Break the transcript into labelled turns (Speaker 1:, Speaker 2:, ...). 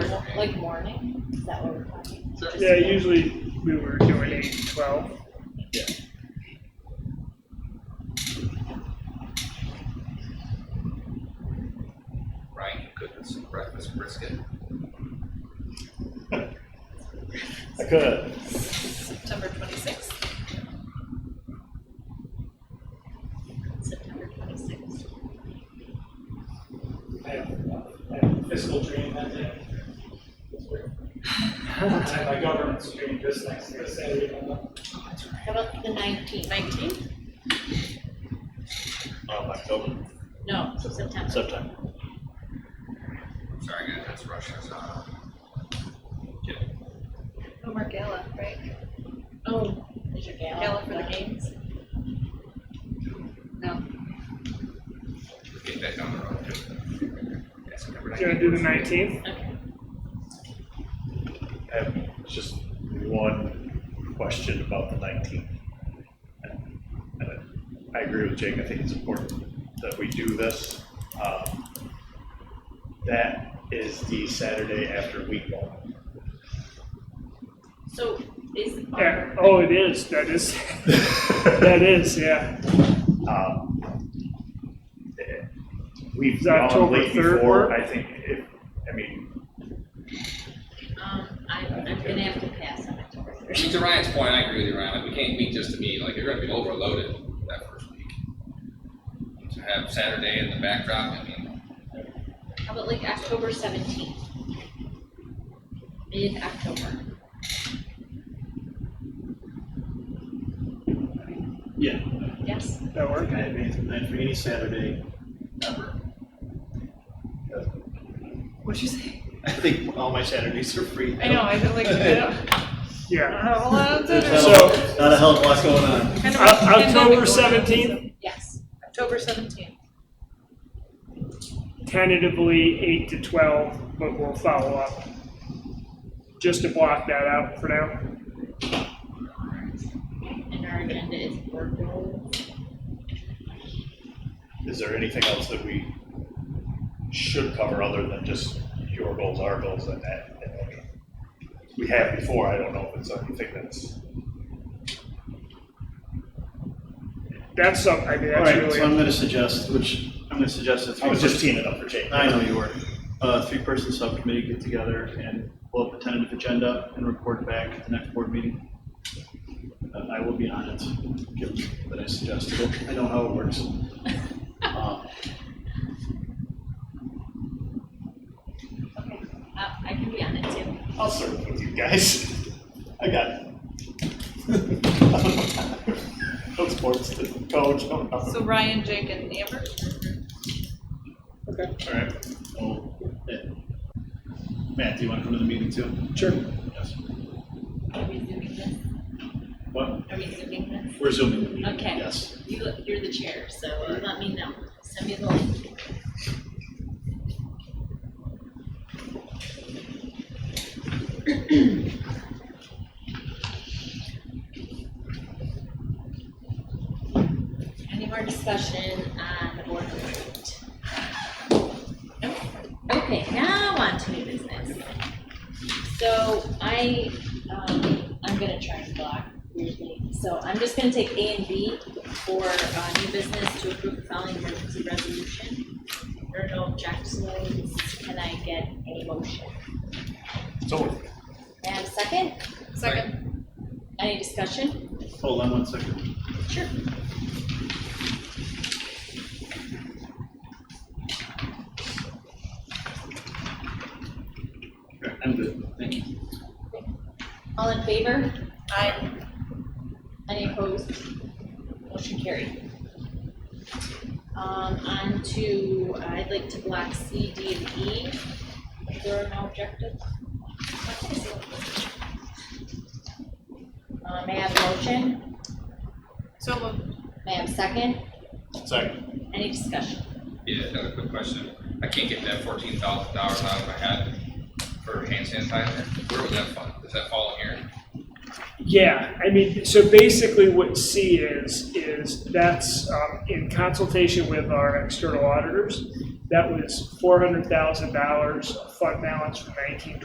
Speaker 1: Like morning, is that what we're talking?
Speaker 2: Yeah, usually we were doing eight to twelve.
Speaker 3: Ryan could cook us some breakfast brisket.
Speaker 4: I could.
Speaker 1: September twenty-sixth? September twenty-sixth.
Speaker 5: I have I have a fiscal dream that day. It's weird. I have my governance dream just next to the Saturday. I'm like,
Speaker 1: How about the nineteenth? Nineteenth?
Speaker 4: Um, October,
Speaker 1: No, September.
Speaker 4: September.
Speaker 3: Sorry, guys, that's rushing us out.
Speaker 6: Homer Gala, right?
Speaker 1: Oh, is your gala?
Speaker 6: Gala for the games? No.
Speaker 3: We'll Get that down the road. Yeah, September
Speaker 2: Do you wanna do the nineteenth?
Speaker 1: Okay.
Speaker 4: I have just one question about the nineteenth. I agree with Jake, I think it's important that we do this. Um, That is the Saturday after week one.
Speaker 1: So is.
Speaker 2: Yeah, oh, it is, that is, that is, yeah.
Speaker 4: Um, eh, We've
Speaker 2: Is that
Speaker 4: gone
Speaker 2: October
Speaker 4: late
Speaker 2: 3rd
Speaker 4: before,
Speaker 2: work?
Speaker 4: I think, if, I mean,
Speaker 1: Um, I, I'm gonna have to pass on October
Speaker 3: I mean,
Speaker 1: third.
Speaker 3: to Ryan's point, I agree with you, Ryan, like, we can't meet just to meet, like, you're gonna be overloaded that first week. To have Saturday in the backdrop, I mean,
Speaker 1: How about like October seventeenth? Mid-October.
Speaker 7: Yeah,
Speaker 1: Yes,
Speaker 2: That
Speaker 7: I
Speaker 2: work?
Speaker 7: think I have anything planned for any Saturday ever.
Speaker 6: What'd you say?
Speaker 7: I think all my Saturdays are free.
Speaker 6: I know, I feel like, I don't
Speaker 2: Yeah.
Speaker 6: have a lot of
Speaker 7: There's
Speaker 6: dinner.
Speaker 7: not
Speaker 2: So-
Speaker 7: a- not a hell of a lot going on.
Speaker 6: Kind of
Speaker 2: O-
Speaker 6: a pandemic
Speaker 2: October
Speaker 6: going on.
Speaker 2: seventeenth,
Speaker 1: yes.
Speaker 6: October seventeenth.
Speaker 2: tentatively eight to twelve, but we'll follow up. Just to block that out for now.
Speaker 1: And our agenda is board goals.
Speaker 4: is there anything else that we should cover other than just your goals, our goals, and that? and that? We have before, I don't know if it's anything that's.
Speaker 2: That's some, I mean,
Speaker 7: All
Speaker 2: that's
Speaker 7: right, so I'm
Speaker 2: really,
Speaker 7: gonna suggest, which, I'm gonna suggest a
Speaker 4: I was just
Speaker 7: three-person.
Speaker 4: teeing it up for Jake.
Speaker 7: I know you were. Uh, three-person subcommittee get together and pull up a tentative agenda and report back at the next board meeting. Uh, I will be on it, given that I suggested it. I know how it works. Um,
Speaker 1: Okay, uh, I can be on it too.
Speaker 4: I'll serve with you guys. I got it. No sports, didn't coach, no nothing.
Speaker 6: So Ryan, Jake, and Amber?
Speaker 7: All right. Well, eh. Matt, do you want to come to the meeting too?
Speaker 4: Sure.
Speaker 7: Yes.
Speaker 1: Are we zooming this?
Speaker 7: What?
Speaker 1: Are we zooming this?
Speaker 7: We're zooming the meeting.
Speaker 1: Okay.
Speaker 7: Yes.
Speaker 1: You, you're the chair, so you let me know. Send me the link. Any more discussion on the board retreat? Nope. Okay, now on to new business. So I, um, I'm gonna try and block weirdly. So I'm just gonna take A and B for, uh, new business to approve the following emergency resolution. There are no objections. Can I get a motion?
Speaker 4: So,
Speaker 1: And second,
Speaker 6: Second.
Speaker 1: any discussion?
Speaker 7: Hold on one second.
Speaker 1: Sure.
Speaker 7: Okay, I'm good. Thank you.
Speaker 1: All in favor?
Speaker 6: Aye.
Speaker 1: Any opposed? Motion carried. Um, on to, uh, I'd like to block C, D, and E. If There are no objectives. Uh, may I have a motion?
Speaker 6: So moved.
Speaker 1: May I have a second?
Speaker 4: sorry.
Speaker 1: Any discussion?
Speaker 3: yeah, another quick question. I can't get that fourteen thousand dollars out of my head for hand sanitizer. Where would that fall? Does that fall in here?
Speaker 2: yeah, I mean, so basically what C is, is that's, um, in consultation with our external auditors. That was four hundred thousand dollars fund balance from nineteen